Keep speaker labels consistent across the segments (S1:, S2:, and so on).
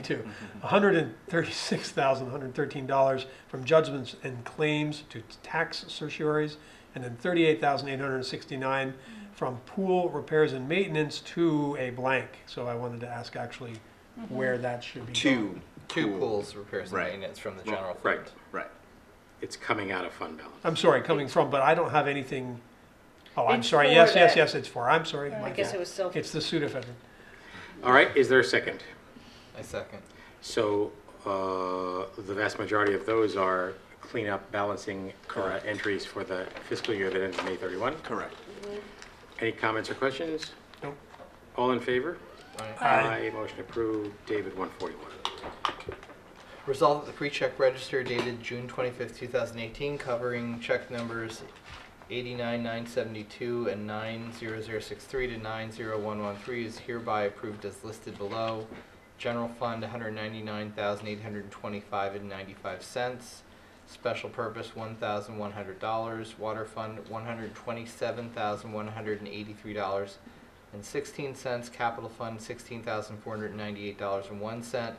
S1: Two, $136,113 from judgments and claims to tax certiorieries, and then $38,869 from pool repairs and maintenance to a blank. So I wanted to ask actually
S2: Mm-hmm.
S1: where that should be. going.
S3: two
S4: two
S3: pool-
S4: pools repairs and
S3: Right.
S4: maintenance from the general fund.
S3: Right, right. It's coming out of fund balance.
S1: I'm sorry, coming from, but I don't have anything, oh, I'm
S2: It's
S1: sorry,
S2: for
S1: yes, yes,
S2: that.
S1: yes, it's for, I'm sorry. my
S2: I guess
S1: fault.
S2: it was still,
S1: It's the Sudafed.
S3: All right, is there a second?
S4: I second.
S3: So uh, the vast majority of those are cleanup balancing uh, entries for the fiscal year that ends May 31.
S5: Correct.
S3: Any comments or questions?
S1: Nope.
S3: All in favor?
S4: Alright.
S3: Aye. Motion approved. David, 141.
S4: Resolve that the pre-check register dated June 25th, 2018, covering check numbers 89972 and 90063 to 90113 is hereby approved as listed below. General fund 199,825 and 95 cents. Special purpose $1,100. Water fund $127,183 and 16 cents. Capital fund $16,498.01.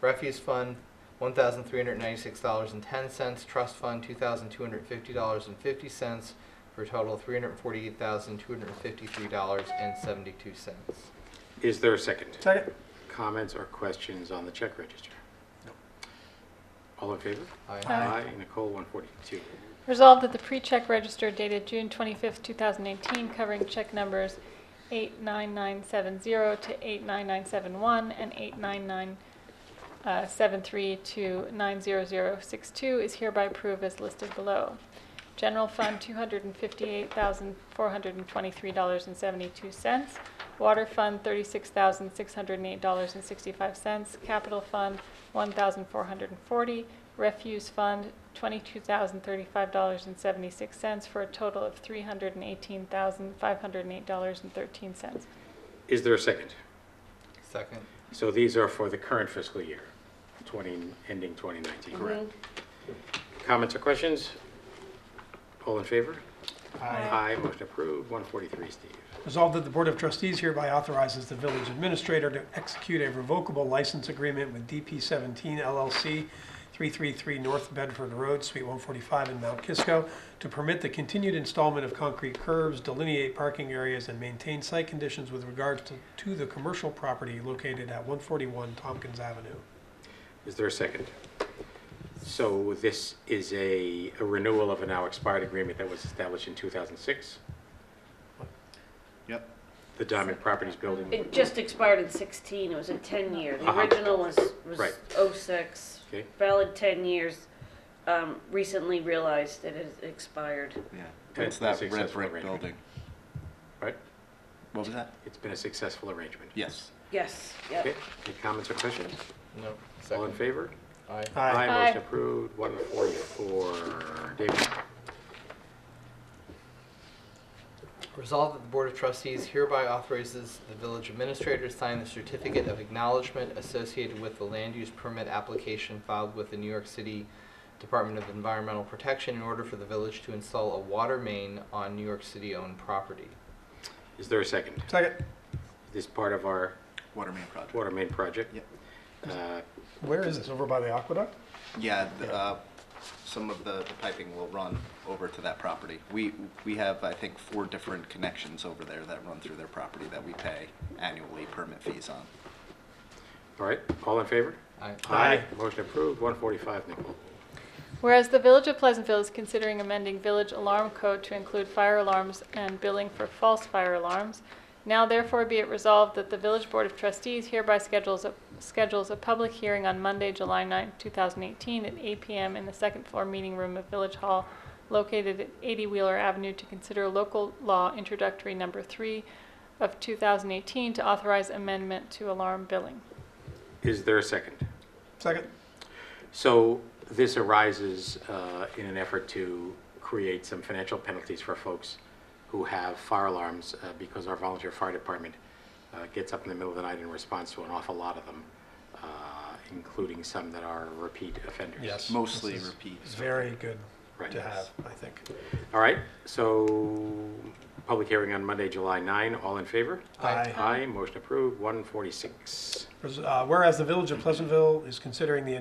S4: Refuse fund one thousand three hundred ninety-six dollars and ten cents. Trust fund two thousand two hundred fifty dollars and fifty cents for a total of three hundred forty-eight thousand two hundred fifty-three dollars and seventy-two cents.
S3: Is there a second?
S1: Second?
S3: Comments or questions on the check register?
S1: Nope.
S3: All in favor?
S2: Aye.
S3: Nicole, 142.
S6: Resolved that the pre-check register dated June 25th, 2018, covering check numbers 89970 to 89971 and 89973 to 90062 is hereby approved as listed below. General Fund, $258,423.72. Water Fund, $36,608.65. Capital Fund, $1,440. Refuse Fund, $22,035.76, for a total of $318,508.13.
S3: Is there a second?
S4: Second.
S3: So these are for the current fiscal year, 20, ending 2019. Correct. Comments or questions? All in favor? Aye. Motion approved. 143, Steve.
S1: Resolved that the Board of Trustees hereby authorizes the village administrator to execute a revocable license agreement with DP 17 LLC, 333 North Bedford Road, Suite 145 in Mount Kisco, to permit the continued installment of concrete curbs, delineate parking areas, and maintain site conditions with regards to, to the commercial property located at 141 Tompkins Avenue.
S3: Is there a second? So this is a a renewal of a now expired agreement that was established in 2006,
S5: Yep.
S3: the Diamond Properties Building.
S2: it just expired in 16, it was a 10-year. The
S3: Uh-huh.
S2: original was, was
S3: Right.
S2: 06,
S3: Okay.
S2: valid 10 years. Um, Recently realized it has expired.
S5: Yeah.
S3: And
S5: It's
S3: it's
S5: that
S3: a
S5: red
S3: successful
S5: brick
S3: arrangement.
S5: building.
S3: Right?
S5: What was that?
S3: It's been a successful arrangement.
S5: Yes.
S2: Yes,
S3: Okay,
S2: yep.
S3: any comments or questions?
S4: No.
S3: All in
S4: Second.
S3: favor?
S4: Aye.
S1: Aye.
S6: Aye.
S3: Motion approved, one forty-four. David,
S4: Resolved that the Board of Trustees hereby authorizes the village administrator to sign the certificate of acknowledgement associated with the land use permit application filed with the New York City Department of Environmental Protection in order for the village to install a water main on New York City-owned property.
S3: is there a second?
S1: Second,
S3: Is This part of our
S5: Water main project.
S3: water main project?
S5: Yep.
S3: Uh,
S1: where is this, over by the aqueduct?
S5: Yeah, the, uh, some of the the piping will run over to that property. We, we have, I think, four different connections over there that run through their property that we pay annually permit fees on.
S3: All right, all in favor?
S4: Aye.
S1: Aye.
S3: Motion approved, one forty-five, Nicole.
S6: Whereas the Village of Pleasantville is considering amending village alarm code to include fire alarms and billing for false fire alarms, now therefore be it resolved that the Village Board of Trustees hereby schedules a, schedules a public hearing on Monday, July 9, 2018, at 8 p.m. in the second floor meeting room of Village Hall, located at 80 Wheeler Avenue, to consider local law introductory number 3 of 2018 to authorize amendment to alarm billing.
S3: Is there a second?
S1: Second,
S3: So this arises uh, in an effort to create some financial penalties for folks who have fire alarms uh, because our volunteer fire department uh, gets up in the middle of the night and responds to an awful lot of them, uh, including some that are repeat offenders.
S1: yes.
S5: Mostly
S1: This is
S5: repeat.
S1: Very good
S3: Right.
S1: to have, I think.
S3: All right, so public hearing on Monday, July 9. All in favor?
S4: Aye.
S3: Aye, motion approved, 146.
S1: Res- uh, Whereas the Village of Pleasantville is considering the